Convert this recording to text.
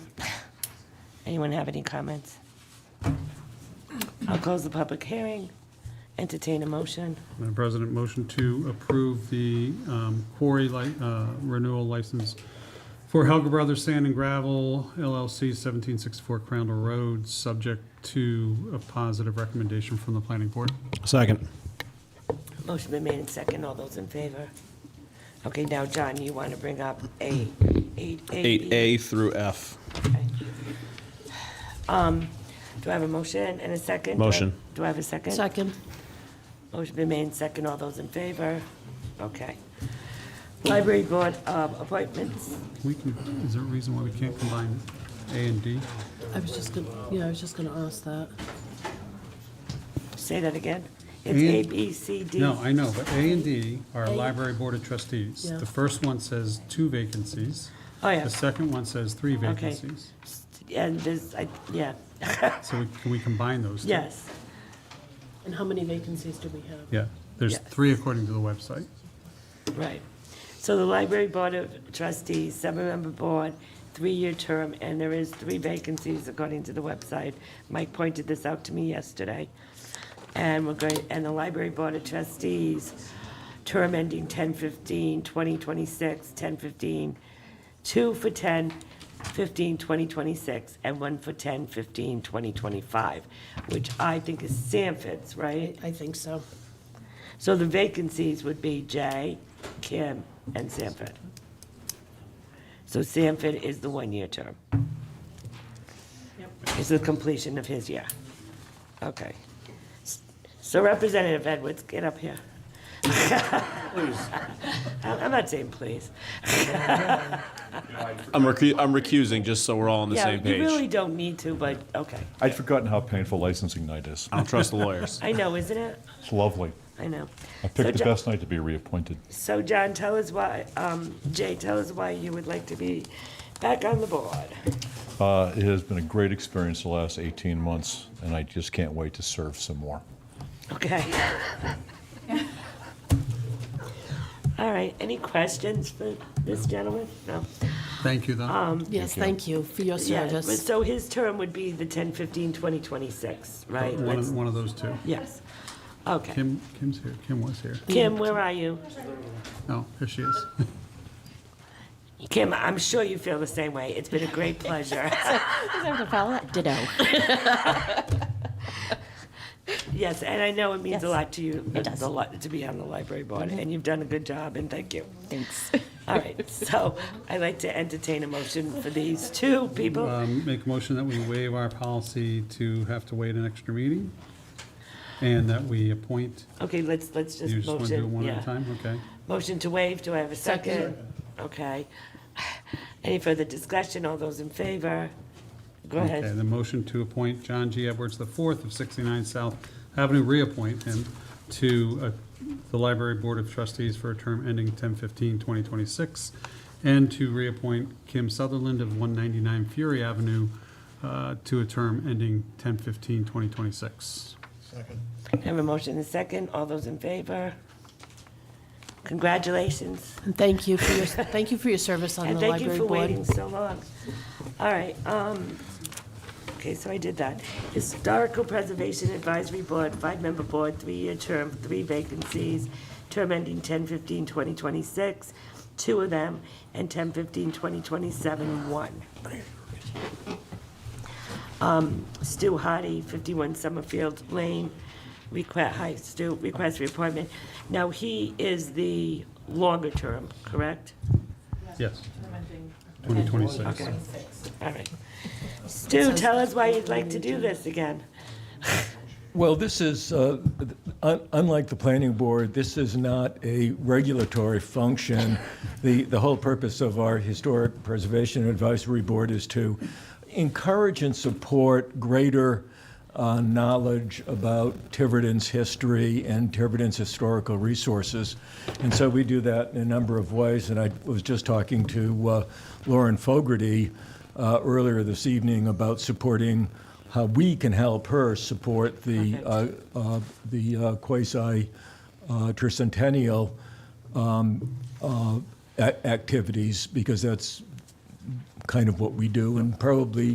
Anyone have any comments? I'll close the public hearing, entertain a motion. Madam President, motion to approve the um, quarry li- uh, renewal license for Helga Brothers Sand and Gravel LLC, 1764 Crandall Road, subject to a positive recommendation from the planning board. Second. Motion been made in second, all those in favor? Okay, now, John, you want to bring up A, eight, eight. Eight A through F. Do I have a motion and a second? Do I- Motion. Do I have a second? Second. Motion been made in second, all those in favor? Okay. Library Board of Appointments, We can, is there a reason why we can't combine A and D? I was just gonna, yeah, I was just gonna ask that. say that again. It's And- A, B, C, D. No, I know, but A and D are Library Board of Trustees. Yeah. The first one says two vacancies. Oh, yeah. The second one says three vacancies. And this, I, yeah, So we- can we combine those two? yes. And how many vacancies do we have? Yeah, there's Yes. three according to the website. Right. So the Library Board of Trustees, seven-member board, three-year term, and there is three vacancies according to the website. Mike pointed this out to me yesterday. And we're going, and the Library Board of Trustees, term ending 10/15, 2026, 10/15, two for 10/15, 2026, and one for 10/15, 2025, which I think is Sanford's, right? I- I think so. So the vacancies would be Jay, Kim, and Sanford. So Sanford is the one-year term. It's the completion of his year. Okay. So Representative Edwards, get up here. I- I'm not saying please. I'm recu- I'm recusing, just so we're all on the Yeah, same you really page. don't need to, but, okay. I'd forgotten how painful licensing night is. I don't trust the lawyers. I know, isn't it? It's lovely. I know. I So picked the Jo- best night to be reappointed. So John, tell us why, um, Jay, tell us why you would like to be back on the board. Uh, It has been a great experience the last 18 months, and I just can't wait to serve some more. Okay. All right, any questions for this gentleman? No? Thank you, Ah. though. Yes, thank you for your Yeah, but service. So his term would be the 10/15/2026, right? One That's- of, one of those two. Yes. Okay. Kim, Kim's here, Kim was here. Kim, where are you? Oh, here she is. Kim, I'm sure you feel the same way. It's been a great pleasure. Ditto. Yes, and I know it means a Yes. lot to you. It does. Mm-hmm. a lot To be on the library board, and you've done a good job, and thank you. Thanks. All right, so I'd like to entertain a motion for these two people. Um, Make a motion that we waive our policy to have to wait an extra meeting, and that we appoint, Okay, let's, let's just motion. you just want to do it one at yeah. a time? Okay. Motion to waive, do I have a second? Okay. Any further discussion, all those in favor? Go Okay, ahead. the motion to appoint John G. Edwards IV of 69 South Avenue, reappoint him to uh, the Library Board of Trustees for a term ending 10/15/2026, and to reappoint Kim Sutherland of 199 Fury Avenue uh, to a term ending 10/15/2026. Have a motion and a second, all those in favor? Congratulations, And thank you for your, thank you for your service on and the thank you library for waiting board. so long. All right, um, okay, so I did that. Historical Preservation Advisory Board, five-member board, three-year term, three vacancies, term ending 10/15/2026, two of them, and 10/15/2027, one. Um, Stu Hardy, 51 Summerfield Lane, request, hi, Stu, request reappointment. Now, he is the longer term, correct? Yes. 2026. Okay, all right. Stu, tell us why you'd like to do this again. Well, this is, uh, un- unlike the planning board, this is not a regulatory function. The, the whole purpose of our Historic Preservation Advisory Board is to encourage and support greater uh, knowledge about Tiverton's history and Tiverton's historical resources. And so we do that in a number of ways, and I was just talking to uh, Lauren Fogarty uh, earlier this evening about supporting how we can help her support the, uh, uh, the uh, quasi uh, tricentennial um, uh, a- activities, because that's kind of what we do, and probably